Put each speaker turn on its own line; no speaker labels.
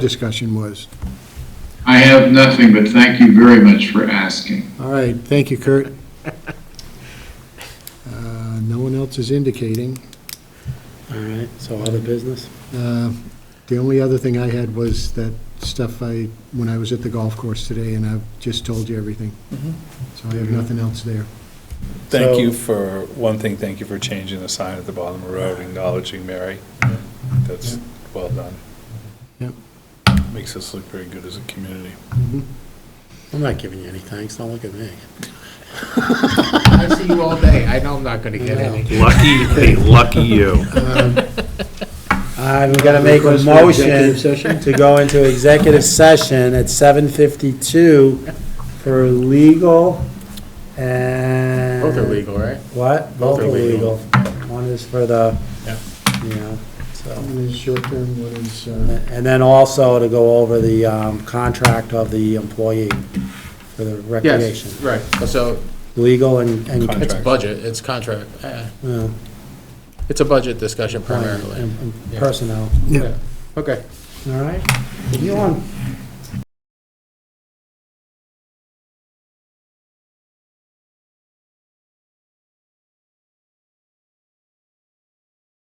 discussion was.
I have nothing, but thank you very much for asking.
All right, thank you, Kurt. Uh, No one else is indicating.
All right, so other business?
Uh, The only other thing I had was that stuff I, when I was at the golf course today, and I've just told you everything. So I have nothing else there.
Thank
So-
you for, one thing, thank you for changing the sign at the bottom of the road, acknowledging Mary. That's well done.
Yep.
Makes us look very good as a community.
Mm-hmm.
I'm not giving you any thanks, don't look at me.
I see you all day. I know I'm not gonna get any.
Lucky, lucky you.
I'm gonna make a
Request for executive
motion
session?
to go into executive session at seven fifty-two for legal and.
Both are legal, right?
What?
Both
Both
are
are legal.
legal.
One is for the,
Yeah.
you know, so.
One is short-term, one is, uh,
And then also to go over the um, contract of the employee for the recreation.
Yes, right. So
Legal and, and,
it's
Contract.
budget, it's contract. eh,
well,
It's a budget discussion
employment
primarily.
and- and
Yeah.
personnel.
yeah.
Okay.
All right, you on